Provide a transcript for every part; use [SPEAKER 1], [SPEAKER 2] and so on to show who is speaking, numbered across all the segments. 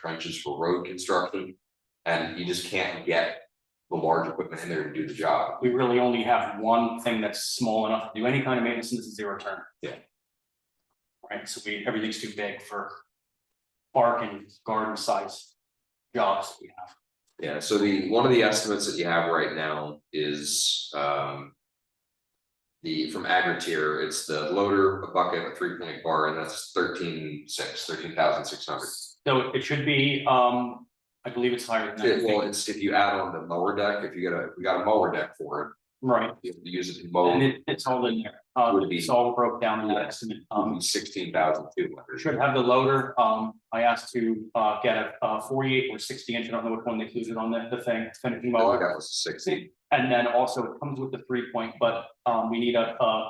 [SPEAKER 1] trenches for road construction. And you just can't get the large equipment in there to do the job.
[SPEAKER 2] we really only have one thing that's small enough to do any kind of maintenance and this is zero turn.
[SPEAKER 1] Yeah.
[SPEAKER 2] Right, so we, everything's too big for park and garden size jobs we have.
[SPEAKER 1] Yeah, so the, one of the estimates that you have right now is um. The, from Agri-Tier, it's the loader, a bucket, a three point bar, and that's thirteen six, thirteen thousand six hundred.
[SPEAKER 2] So it should be, um, I believe it's higher than that, I
[SPEAKER 1] It- Well,
[SPEAKER 2] think,
[SPEAKER 1] it's if you add on the mower deck, if you got a, we got a mower deck for
[SPEAKER 2] right,
[SPEAKER 1] it, you have to use it to
[SPEAKER 2] and
[SPEAKER 1] mow,
[SPEAKER 2] it, it's all in there, uh,
[SPEAKER 1] Would be-
[SPEAKER 2] it's all broke down in that estimate, um.
[SPEAKER 1] sixteen thousand two hundred.
[SPEAKER 2] Should have the loader, um, I asked to, uh, get a, uh forty-eight or sixty inch, I don't know which one they included on the, the thing, finishing
[SPEAKER 1] Oh,
[SPEAKER 2] mower.
[SPEAKER 1] that was sixty,
[SPEAKER 2] And then also it comes with the three point, but um we need a uh.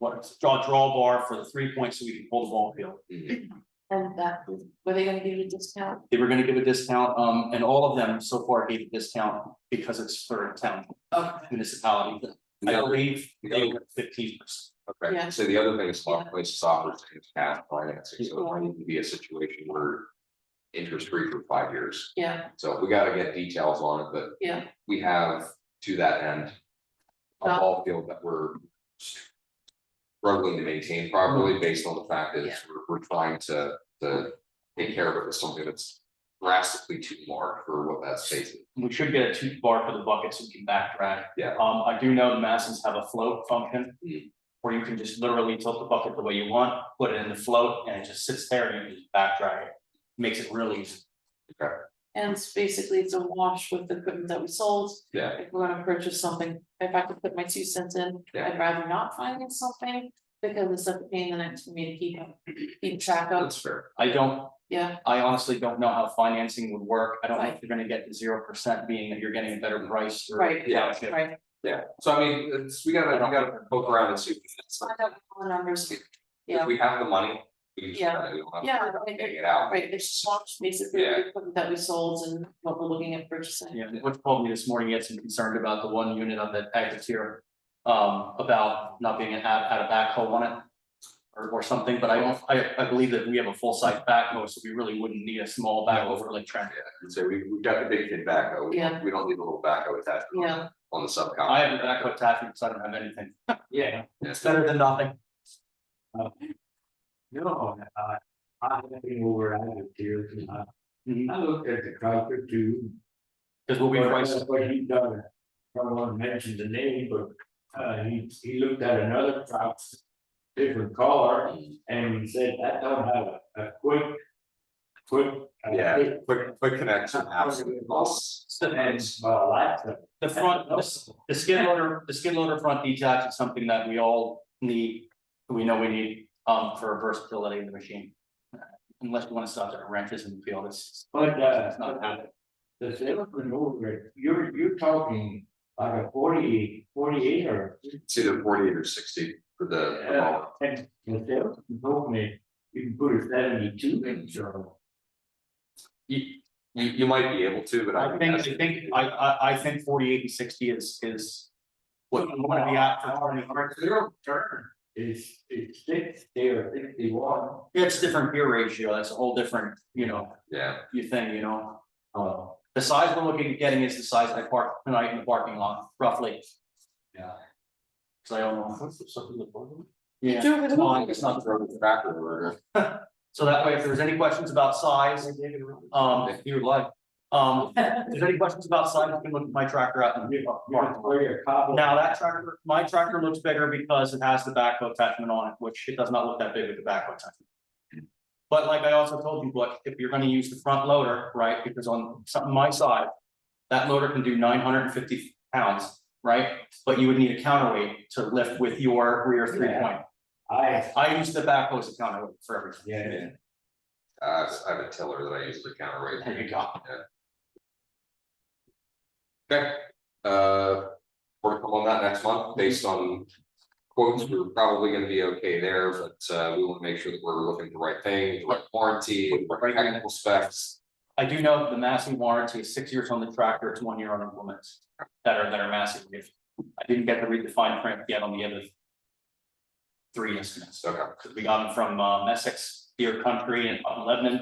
[SPEAKER 2] What, draw draw bar for the three point so we can pull the ball field.
[SPEAKER 1] Mhm.
[SPEAKER 3] And that, were they gonna give you a discount?
[SPEAKER 2] They were gonna give a discount, um, and all of them so far gave a discount because it's for town
[SPEAKER 3] Okay.
[SPEAKER 2] municipality. I
[SPEAKER 1] Yeah,
[SPEAKER 2] believe they
[SPEAKER 1] Yeah.
[SPEAKER 2] were fifteen percent.
[SPEAKER 1] okay,
[SPEAKER 3] Yeah.
[SPEAKER 1] so the other thing is a lot of places offer things cash financing, so it might need to be a situation where. Interest free for five years,
[SPEAKER 3] Yeah,
[SPEAKER 1] so we gotta get details on it, but
[SPEAKER 3] yeah,
[SPEAKER 1] we have to that end. A
[SPEAKER 3] Uh.
[SPEAKER 1] ball field that we're. Struggling to maintain properly
[SPEAKER 3] Mm.
[SPEAKER 1] based on the fact that it's- we're, we're trying to, to take care of it with something that's. Drastically too large for what that space is.
[SPEAKER 2] We should get a tooth bar for the bucket so we can back drag.
[SPEAKER 1] Yeah.
[SPEAKER 2] Um, I do know the Massins have a float function.
[SPEAKER 1] Mm.
[SPEAKER 2] Where you can just literally tilt the bucket the way you want, put it in the float and it just sits there and you can just back drag it. Makes it really easy.
[SPEAKER 3] and it's basically it's a wash with the equipment that we sold.
[SPEAKER 1] Yeah.
[SPEAKER 3] If we're gonna purchase something, if I could put my two cents in,
[SPEAKER 1] Yeah.
[SPEAKER 3] I'd rather not finance something. Because it's a pain in the neck for me to keep, keep track of,
[SPEAKER 1] That's fair.
[SPEAKER 2] I don't,
[SPEAKER 3] yeah,
[SPEAKER 2] I honestly don't know how financing would work. I don't know if you're gonna get the zero percent being that you're getting a better price. or-
[SPEAKER 3] Right.
[SPEAKER 1] Yeah.
[SPEAKER 3] right.
[SPEAKER 1] Yeah, so I mean, it's, we gotta, we gotta poke around and see. if it's-
[SPEAKER 3] Find out all the numbers,
[SPEAKER 1] If
[SPEAKER 3] yeah,
[SPEAKER 1] we have the money, we just
[SPEAKER 3] Yeah.
[SPEAKER 1] gotta, we don't have
[SPEAKER 3] yeah,
[SPEAKER 1] to
[SPEAKER 3] like,
[SPEAKER 1] figure it out.
[SPEAKER 3] right, it's just wash basically
[SPEAKER 1] Yeah.
[SPEAKER 3] the equipment that we sold and what we're looking at purchasing.
[SPEAKER 2] Yeah, Rich called me this morning, he had some concern about the one unit on the active tier. Um, about not being an out, out of backhoe on it. Or, or something, but I don't, I, I believe that we have a full size backhoe, so we really wouldn't need a small backhoe for like traffic.
[SPEAKER 1] So we, we've got the big kid backhoe, we don't,
[SPEAKER 3] Yeah.
[SPEAKER 1] we don't need a little backhoe attached on-
[SPEAKER 3] Yeah.
[SPEAKER 1] on the
[SPEAKER 2] I
[SPEAKER 1] subcon.
[SPEAKER 2] have a backhoe attachment, so I don't have anything.
[SPEAKER 4] Yeah,
[SPEAKER 2] It's better than nothing.
[SPEAKER 4] Oh, no, uh, I'm looking over at it here, and I, I looked at the Crocker too.
[SPEAKER 2] Cause what we
[SPEAKER 4] But
[SPEAKER 2] price,
[SPEAKER 4] that's What he done, I don't wanna mention the name, but, uh, he, he looked at another crop, different color, and he said, that don't have a, a quick, quick. a
[SPEAKER 1] Yeah,
[SPEAKER 4] quick-
[SPEAKER 1] quick, quick connection, absolutely.
[SPEAKER 4] And, uh, well, that's a-
[SPEAKER 2] the front, the, the skid loader, the skid loader front detach is something that we all need. We know we need, um, for versatility of the machine. Unless you wanna stop at wrenches and feel this.
[SPEAKER 4] But, uh,
[SPEAKER 2] It's not happening.
[SPEAKER 4] the salesman over, it, you're, you're talking like a 48 48 or
[SPEAKER 1] It's either forty eight or sixty for the, the mower.
[SPEAKER 4] And the salesman told me you can put a seventy-two inch on.
[SPEAKER 1] you, you, you might be able to, but I.
[SPEAKER 2] I think, I think, I, I, I think forty-eight and sixty is, is. What you wanna be at for twenty.
[SPEAKER 4] Zero turn is, is six, they are sixty-one.
[SPEAKER 2] It's different gear ratio, that's a whole different, you know,
[SPEAKER 1] Yeah,
[SPEAKER 2] you thing, you know.
[SPEAKER 4] Uh,
[SPEAKER 2] The size we're looking at getting is the size I parked tonight in the parking lot, roughly,
[SPEAKER 4] yeah.
[SPEAKER 2] cause I don't know. Yeah,
[SPEAKER 3] Sure,
[SPEAKER 2] it's mine, it's not,
[SPEAKER 1] throw the tractor or.
[SPEAKER 2] so that way, if there's any questions about size, um, if you would like. Um, if there's any questions about size, you can look at my tractor out in the parking lot.
[SPEAKER 4] Where cobble.
[SPEAKER 2] Now, that tractor, my tractor looks bigger because it has the backhoe attachment on it, which it does not look that big with the backhoe attachment. But like I also told you, Butch, if you're gonna use the front loader, right, because on something my side. That loader can do nine hundred and fifty pounds, right, but you would need a counterweight to lift with your rear three point.
[SPEAKER 4] I,
[SPEAKER 2] I use the backhoe as a counterweight for everything.
[SPEAKER 4] yeah,
[SPEAKER 1] Uh, I have a tiller that I use to counterweight.
[SPEAKER 2] There you go.
[SPEAKER 1] Okay, uh, work on that next month based on quotes, we're probably gonna be okay there, but uh, we wanna make sure that we're looking at the right thing, the right warranty, the right technical specs.
[SPEAKER 2] I do know the massive warranty is six years on the tractor, it's one year on implements that are, that are massive. If- I didn't get to read the fine print yet on the other. Three estimates,
[SPEAKER 1] Okay,
[SPEAKER 2] because we got them from uh, Essex deer country and up in Lebanon.